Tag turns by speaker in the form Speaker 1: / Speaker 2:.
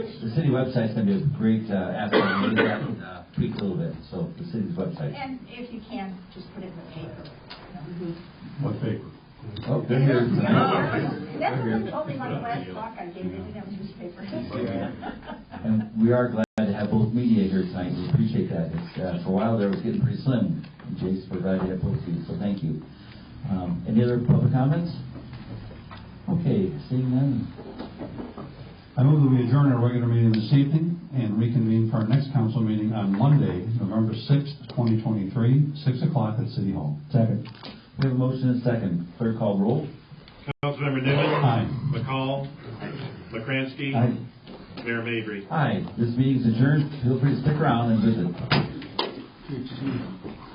Speaker 1: The city website's gonna be a great uh, asset, maybe that can uh, tweak a little bit, so the city's website.
Speaker 2: And if you can, just put it in the paper.
Speaker 3: What paper?
Speaker 1: Oh,
Speaker 2: That's
Speaker 1: they're here.
Speaker 2: the only my last talk I gave, they didn't have a newspaper.
Speaker 1: And we are glad to have both media here tonight, we appreciate that. It's, uh, For a while there, it was getting pretty slim, and Jason provided that both of you, so thank you. Um, Any other public comments? Okay, seeing none.
Speaker 3: I move that we adjourn our regular meeting this evening and reconvene for our next council meeting on Monday, November 6th, 2023, 6 o'clock at City Hall.
Speaker 1: Second. We have a motion and a second, clerk call roll.
Speaker 4: Councilmember Nivens.
Speaker 3: Aye.
Speaker 4: McCall. McCransky. Mayor Mabry.
Speaker 1: Aye, this meeting's adjourned, feel free to stick around and visit.